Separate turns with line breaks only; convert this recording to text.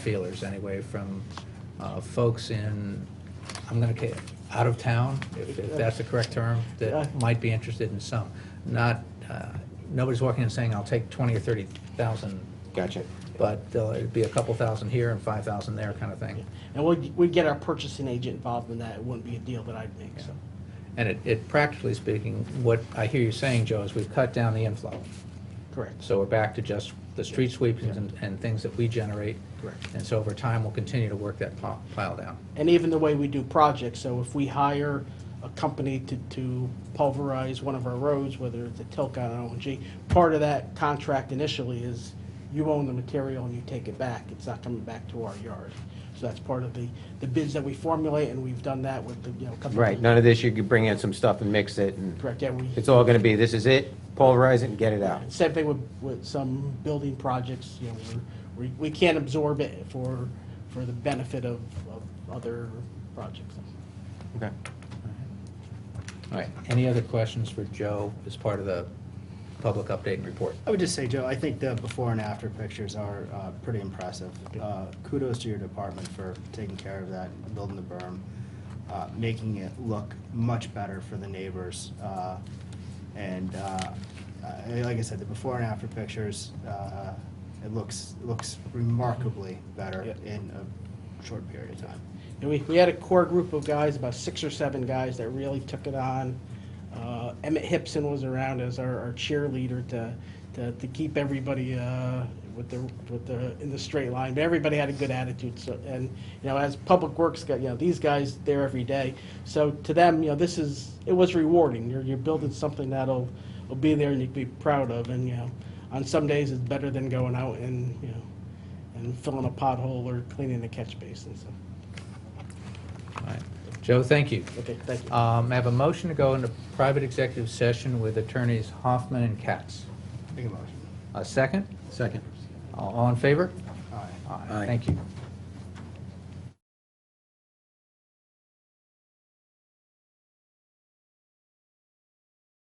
feelers anyway from uh, folks in, I'm going to, out of town, if if that's the correct term,
Yeah.
that might be interested in some. Not, uh, nobody's walking in saying, I'll take 20 or 30,000,
Gotcha.
but uh, it'd be a couple thousand here and 5,000 there kind of thing.
And we'd, we'd get our purchasing agent involved in that. It wouldn't be a deal that I'd make, so.
And it- it, practically speaking, what I hear you saying, Joe, is we've cut down the inflow.
Correct.
So we're back to just the street sweepings and and things that we generate.
Correct.
And so over time, we'll continue to work that pile pile down.
And even the way we do projects, so if we hire a company to, to pulverize one of our roads, whether it's a Tilcon or ONG, part of that contract initially is you own the material and you take it back. It's not coming back to our yard. So that's part of the, the bids that we formulate, and we've done that with the, you know, couple.
Right, none of this, you could bring in some stuff and mix it, and
Correct, yeah, we.
it's all gonna be, this is it, pulverize it and get it out.
Same thing with, with some building projects, you know, we're, we, we can't absorb it for, for the benefit of, of other projects.
Okay.
All right, any other questions for Joe as part of the public update and report?
I would just say, Joe, I think the before and after pictures are uh, pretty impressive. Uh, Kudos to your department for taking care of that, building the berm, uh, making it look much better for the neighbors. Uh, And uh, I- like I said, the before and after pictures, uh, it looks, looks remarkably better
Yeah.
in a short period of time.
And we, we had a core group of guys, about six or seven guys, that really took it on. Uh, Emmett Hipson was around as our, our cheerleader to, to, to keep everybody, uh, with the, with the, in the straight line, but everybody had a good attitude, so, and, you know, as Public Works got, you know, these guys there every day, so to them, you know, this is, it was rewarding, you're, you're building something that'll, will be there and you can be proud of, and, you know, on some days, it's better than going out and, you know, and filling a pothole or cleaning the catch basin, so.
All right. Joe, thank you.
Okay, thank you.
Um, I have a motion to go into private executive session with attorneys Hoffman and Katz.
Make a motion.
A second?
Second.
All all in favor?
All right.
All right,
Aye.
Thank you.